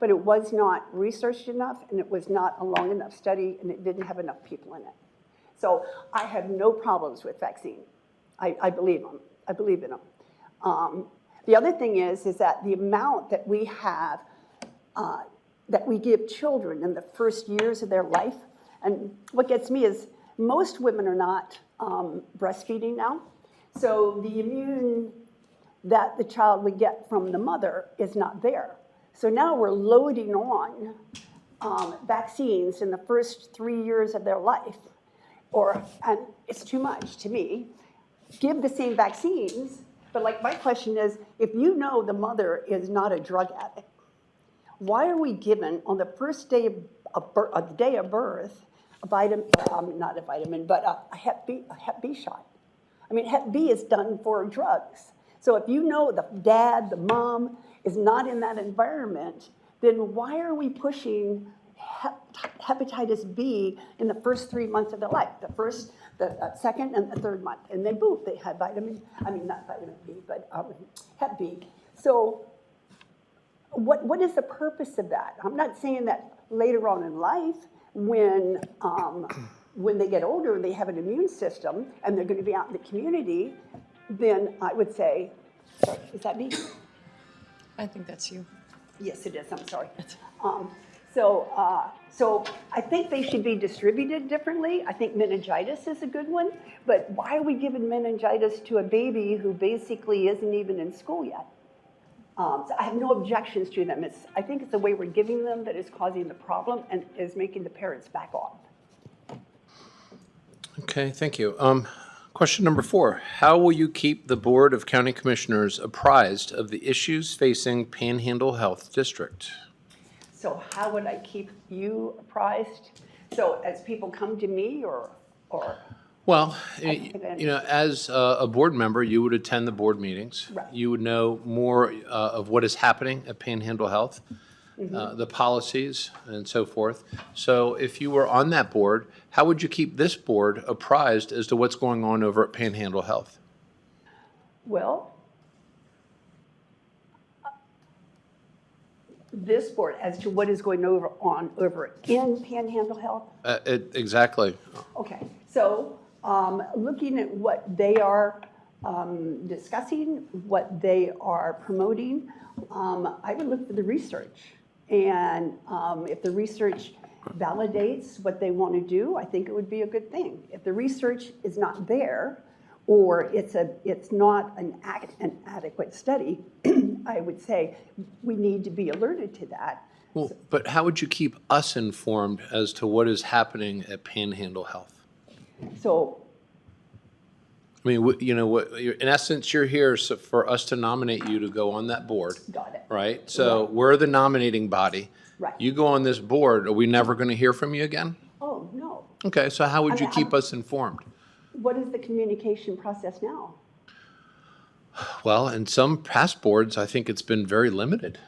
but it was not researched enough, and it was not a long enough study, and it didn't have enough people in it. So I have no problems with vaccine. I, I believe them. I believe in them. Um, the other thing is, is that the amount that we have, uh, that we give children in the first years of their life, and what gets me is most women are not um, breastfeeding now, so the immune that the child would get from the mother is not there. So now we're loading on um, vaccines in the first three years of their life, or and it's too much to me. Give the same vaccines, but like my question is, if you know the mother is not a drug addict, why are we given on the first day of, of, bir- of the day of birth a vitamin, um, not a vitamin, but a, a, hep B, a Hep B shot? I mean, Hep B is done for drugs. So if you know the dad, the mom is not in that environment, then why are we pushing hep- hepatitis B in the first three months of their life? The first, the uh, second, and the third month, and then boom, they had vitamin. I mean, not vitamin B, but um, Hep B. So what, what is the purpose of that? I'm not saying that later on in life, when, um, when they get older and they have an immune system and they're going to be out in the community, then I would say, sorry, is that me? I think that's you. Yes, it is, I'm sorry. Um, so, uh, so I think they should be distributed differently. I think meningitis is a good one, but why are we giving meningitis to a baby who basically isn't even in school yet? Um, so I have no objections to them. It's, I think it's the way we're giving them that is causing the problem and is making the parents back off. Okay, thank you. Um, Question number four, how will you keep the Board of County Commissioners apprised of the issues facing Panhandle Health District? So how would I keep you apprised? So as people come to me or, or, Well, y- you know, as uh, a board member, you would attend the board meetings. Right. You would know more uh, of what is happening at Panhandle Health, uh, the policies and so forth. So if you were on that board, how would you keep this board apprised as to what's going on over at Panhandle Health? well, this board as to what is going over on over in Panhandle Health, Uh, it- Exactly. Okay, so um, looking at what they are um, discussing, what they are promoting, um, I would look for the research. And um, if the research validates what they want to do, I think it would be a good thing. If the research is not there, or it's a, it's not an ac- an adequate study, I would say we need to be alerted to that. Well, but how would you keep us informed as to what is happening at Panhandle Health? So I mean, wh- you know, what, you're- in essence, you're here so for us to nominate you to go on that board, Got it. right? So we're the nominating body. Right. You go on this board, are we never going to hear from you again? Oh, no. Okay, so how would you I'm- keep us informed? What is the communication process now? Well, in some past boards, I think it's been very limited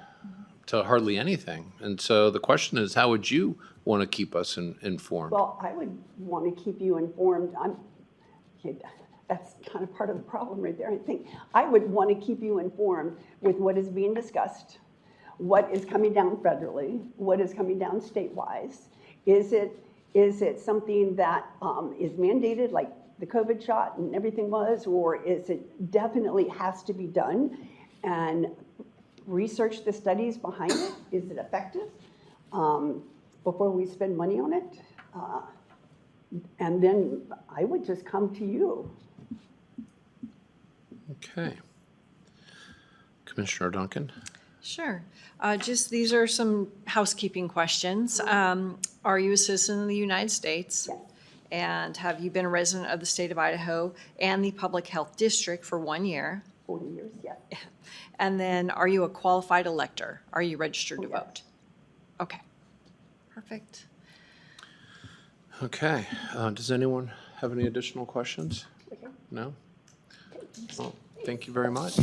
to hardly anything. And so the question is, how would you want to keep us in- informed? Well, I would want to keep you informed. I'm, that's kind of part of the problem right there, I think. I would want to keep you informed with what is being discussed, what is coming down federally, what is coming down state-wise. Is it, is it something that um, is mandated, like the COVID shot and everything was? Or is it definitely has to be done? And research the studies behind it. Is it effective? um, before we spend money on it. Uh, And then I would just come to you. Okay. Commissioner Duncan? Sure. Uh, Just, these are some housekeeping questions. Um, Are you a citizen of the United States? Yes. And have you been a resident of the state of Idaho and the Public Health District for one year? 40 years, yeah. And then, are you a qualified elector? Are you registered to yes. vote? Okay, perfect. Okay, uh, does anyone have any additional questions? Okay. No? Well, thank you very much.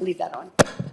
Leave that on.